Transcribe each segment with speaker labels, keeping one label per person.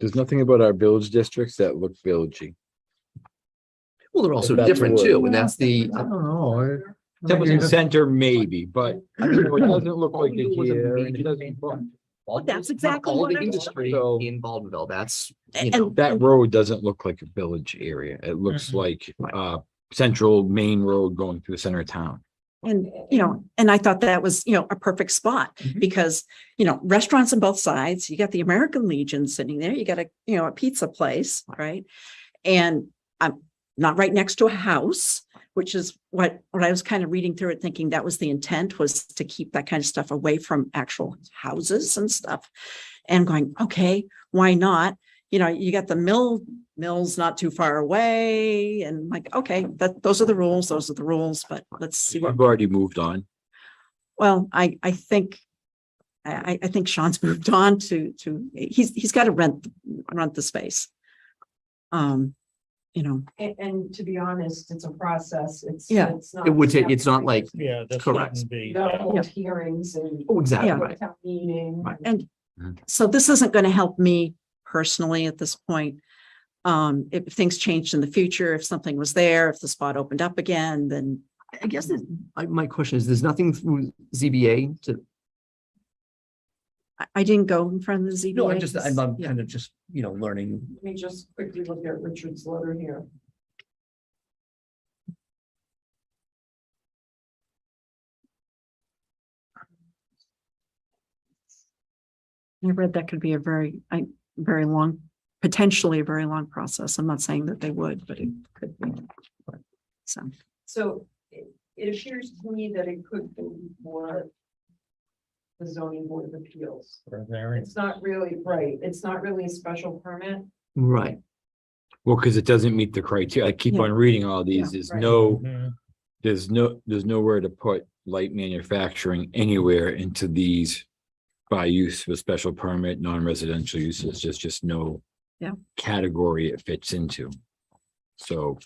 Speaker 1: There's nothing about our village districts that look villagey.
Speaker 2: Well, they're also
Speaker 1: That's the
Speaker 2: different
Speaker 1: word.
Speaker 2: too, and that's the,
Speaker 3: I don't know. I- I mean,
Speaker 1: Templeton
Speaker 3: it's-
Speaker 1: Center maybe, but I don't know, it doesn't look
Speaker 3: All
Speaker 1: like
Speaker 3: we
Speaker 1: it
Speaker 3: do was a
Speaker 1: here and it
Speaker 3: major
Speaker 1: doesn't. look-
Speaker 3: manufacturing.
Speaker 2: all
Speaker 4: That's
Speaker 2: the-
Speaker 4: exactly
Speaker 2: all
Speaker 4: what
Speaker 2: the
Speaker 4: I'm-
Speaker 2: industry
Speaker 1: So-
Speaker 2: in Baldwinville, that's, you know,
Speaker 4: And Mm-hmm.
Speaker 1: That road doesn't look like a village area. It looks
Speaker 3: Mhm.
Speaker 1: like
Speaker 2: Right.
Speaker 1: uh central main road going through the center of town.
Speaker 4: And, you know, and I thought that was, you know, a perfect spot
Speaker 2: Mhm.
Speaker 4: because, you know, restaurants on both sides, you got the American Legion sitting there, you got a, you know, a pizza place, right? And I'm not right next to a house, which is what, what I was kind of reading through it, thinking that was the intent was to keep that kind of stuff away from actual houses and stuff. And going, okay, why not? You know, you got the mill, mill's not too far away and like, okay, that, those are the rules, those are the rules, but let's see what
Speaker 1: We've already moved on.
Speaker 4: well, I, I think, I, I- I think Sean's moved on to, to, he's, he's got to rent, rent the space. Um, you know,
Speaker 5: And, and to be honest, it's a process. It's.
Speaker 4: Yeah.
Speaker 5: it's not-
Speaker 2: it would take, it's not like,
Speaker 3: Yeah. that
Speaker 2: Correct.
Speaker 3: shouldn't be-
Speaker 5: You gotta
Speaker 4: Yeah.
Speaker 5: hold hearings and.
Speaker 2: oh, exactly,
Speaker 4: Yeah.
Speaker 2: right.
Speaker 5: Town meeting.
Speaker 2: Right.
Speaker 4: and
Speaker 1: Mhm.
Speaker 4: so this isn't going to help me personally at this point. Um, if things changed in the future, if something was there, if the spot opened up again, then
Speaker 2: I guess that, I, my question is, there's nothing through ZBA to,
Speaker 4: I, I didn't go in front of the ZBA.
Speaker 2: no, I'm just, I'm, I'm
Speaker 4: Yeah.
Speaker 2: kind of just, you know, learning.
Speaker 5: Let me just quickly look at Richard's letter here.
Speaker 4: I read that could be a very, I, very long, potentially a very long process. I'm not saying that they would, but it could be. So.
Speaker 5: So it, it appears to me that it could be more. The zoning board of appeals.
Speaker 3: for a variance.
Speaker 5: It's not really, right, it's not really a special permit.
Speaker 2: Right,
Speaker 1: Well, because it doesn't meet the criteria. I keep
Speaker 4: Yeah.
Speaker 1: on reading all these. There's
Speaker 5: right.
Speaker 1: no,
Speaker 3: Mhm.
Speaker 1: there's no, there's nowhere to put light manufacturing anywhere into these. By use of a special permit, non-residential uses, just, just no.
Speaker 4: Yeah.
Speaker 1: Category it fits into. So.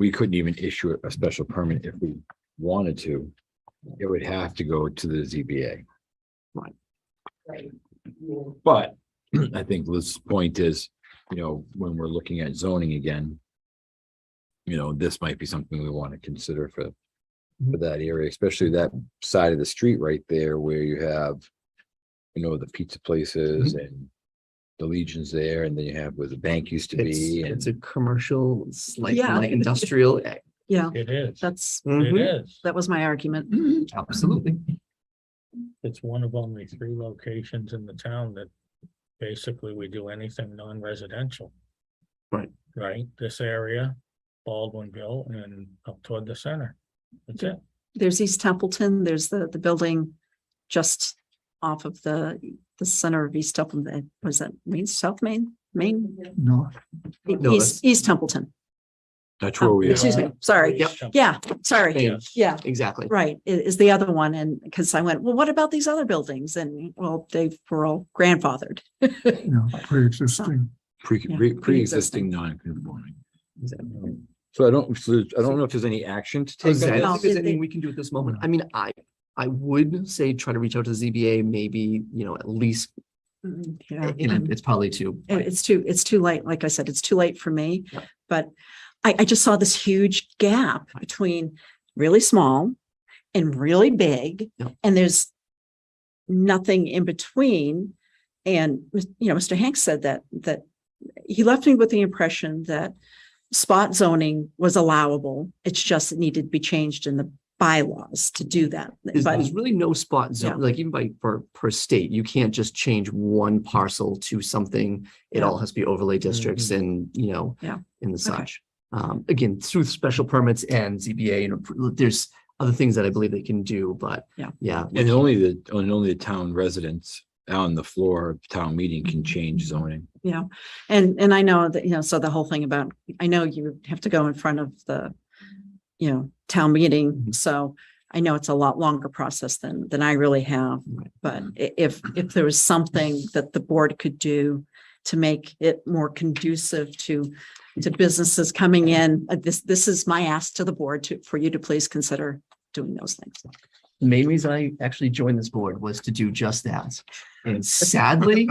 Speaker 1: We couldn't even issue a special permit if we wanted to. It would have to go to the ZBA.
Speaker 5: Right. Yeah.
Speaker 1: But I think Liz's point is, you know, when we're looking at zoning again. You know, this might be something we want to consider for, for that area, especially that side of the street right there where you have. You know, the pizza places
Speaker 2: Mm-hmm.
Speaker 1: and the legions there, and then you have where the bank used to
Speaker 2: it's,
Speaker 1: be
Speaker 2: it's
Speaker 1: and.
Speaker 2: a commercial, it's like,
Speaker 4: Yeah.
Speaker 2: like industrial. eh,
Speaker 4: Yeah,
Speaker 3: It is.
Speaker 4: that's,
Speaker 3: It
Speaker 2: mhm,
Speaker 3: is.
Speaker 4: that was my argument.
Speaker 2: mhm, Absolutely.
Speaker 3: It's one of only three locations in the town that basically we do anything non-residential.
Speaker 2: Right.
Speaker 3: Right, this area, Baldwinville and up toward the center. That's it.
Speaker 4: There's East Templeton, there's the, the building just off of the, the center of East Templeton, was that Main, South Main, Main?
Speaker 2: No. No, that's-
Speaker 4: East, East Templeton.
Speaker 1: That's
Speaker 4: Oh,
Speaker 1: where we
Speaker 4: Excuse
Speaker 1: are.
Speaker 4: me, sorry.
Speaker 2: Yep.
Speaker 4: Yeah, sorry.
Speaker 2: Yeah,
Speaker 3: Yes.
Speaker 4: Yeah,
Speaker 2: Exactly.
Speaker 4: right, i- is the other one. And because I went, well, what about these other buildings? And well, they were all grandfathered.
Speaker 6: pre-existing.
Speaker 1: Pre, pre-
Speaker 4: Yeah, pre-existing.
Speaker 1: pre-existing non-conforming.
Speaker 2: Exactly.
Speaker 1: So I don't, so I don't know if there's any action to
Speaker 2: I
Speaker 1: take.
Speaker 2: was gonna say, I
Speaker 1: on
Speaker 2: don't
Speaker 4: No.
Speaker 2: think there's
Speaker 4: Did they-
Speaker 2: anything we can do at this moment. I mean, I, I would say try to reach out to the ZBA, maybe, you know, at least,
Speaker 4: Mm, Yeah.
Speaker 2: and it- it's probably too.
Speaker 4: It- It's too, it's too late. Like I said, it's too late for me.
Speaker 2: Yeah.
Speaker 4: But I, I just saw this huge gap between really small and really big.
Speaker 2: Yeah.
Speaker 4: And there's nothing in between. And, you know, Mr. Hanks said that, that he left me with the impression that spot zoning was allowable. It's just it needed to be changed in the bylaws to do that.
Speaker 2: There's,
Speaker 4: But
Speaker 2: there's really no spot zone, like even by, per per state, you can't just change one parcel to something. It
Speaker 4: Yeah.
Speaker 2: all has to be overlay districts and, you know.
Speaker 4: Yeah.
Speaker 2: And the
Speaker 4: Okay.
Speaker 2: such. Um, again, through special permits and ZBA, and appro- there's other things that I believe they can do, but.
Speaker 4: Yeah.
Speaker 2: Yeah.
Speaker 1: And only the, and only the town residents on the floor of town meeting can change zoning.
Speaker 4: And, and I know that, you know, so the whole thing about, I know you have to go in front of the, you know, town meeting,
Speaker 2: Mhm.
Speaker 4: so I know it's a lot longer process than, than I really have.
Speaker 2: Right.
Speaker 4: But i- if, if there was something that the board could do to make it more conducive to, to businesses coming in, uh, this, this is my ask to the board to, for you to please consider doing those things.
Speaker 2: The main reason I actually joined this board was to do just that. And sadly,